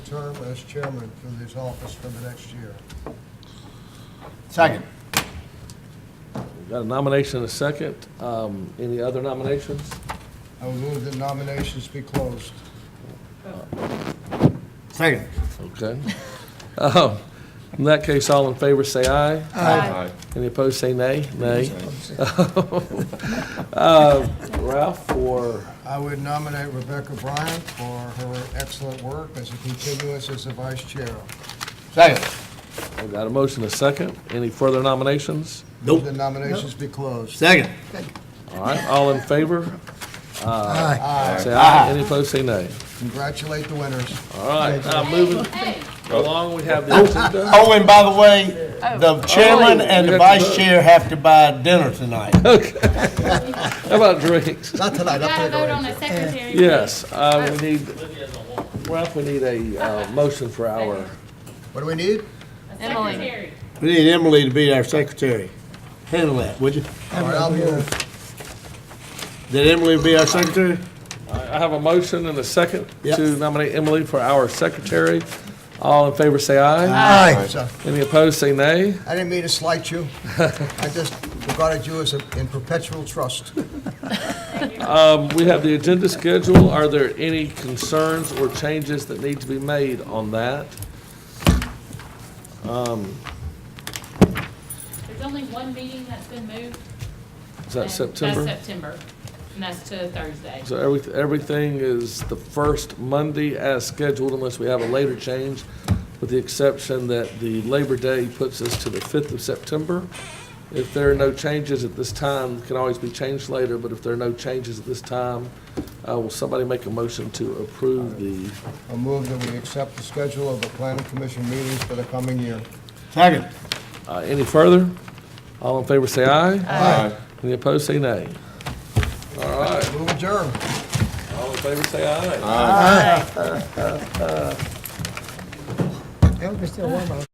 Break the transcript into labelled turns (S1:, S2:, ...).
S1: term as chairman for this office for the next year.
S2: Second.
S3: We've Got a nomination and a second. Um, Any other nominations?
S1: I will move that nominations be closed.
S2: Second.
S3: Okay. Um, In that case, all in favor, say aye.
S4: Aye.
S3: Any opposed, say nay. Nay. Uh, Ralph, for,
S1: I would nominate Rebecca Bryant for her excellent work as a continuous as a vice chair.
S2: Second.
S3: we've got a motion and a second. Any further nominations?
S1: Move that nominations be closed.
S2: Second.
S3: All right, all in favor, Uh,
S1: Aye.
S3: say aye. Any opposed, say nay.
S1: Congratulate the winners.
S3: All right, now moving
S4: Hey,
S3: along, we have the agenda.
S2: Oh, and by the way, the chairman
S3: Oh,
S2: and
S3: we
S2: the
S3: have to
S2: vice
S3: vote.
S2: chair have to buy dinner tonight.
S3: How about drinks?
S1: Not
S4: you
S1: tonight,
S4: gotta
S1: I'll
S4: vote
S1: take
S4: on the secretary.
S3: Yes, uh, we need, Ralph, we need a uh, motion for our,
S1: What do we need?
S4: Emily.
S2: We need Emily to be our secretary. Handle that, would you?
S1: All right, I'll move.
S2: That Emily be our secretary?
S3: I I have a motion and a second
S2: Yep.
S3: to nominate Emily for our secretary. All in favor, say aye.
S1: Aye. So-
S3: Any opposed, say nay.
S1: I didn't mean to slight you. I just regarded you as a- in perpetual trust.
S3: Um, We have the agenda schedule. Are there any concerns or changes that need to be made on that?
S4: There's only one meeting that's been moved.
S3: Is that
S4: and
S3: September?
S4: That's September, and that's to Thursday.
S3: So every- everything is the first Monday as scheduled unless we have a later change, with the exception that the Labor Day puts us to the 5th of September. If there are no changes at this time, it can always be changed later, but if there are no changes at this time, uh, will somebody make a motion to approve the,
S1: I move that we accept the schedule of the planning commission meetings for the coming year.
S2: Second.
S3: uh, any further? All in favor, say aye.
S1: Aye.
S3: Any opposed, say nay. All right,
S1: Move adjourned.
S3: all in favor, say aye.
S5: I hope it's still warm out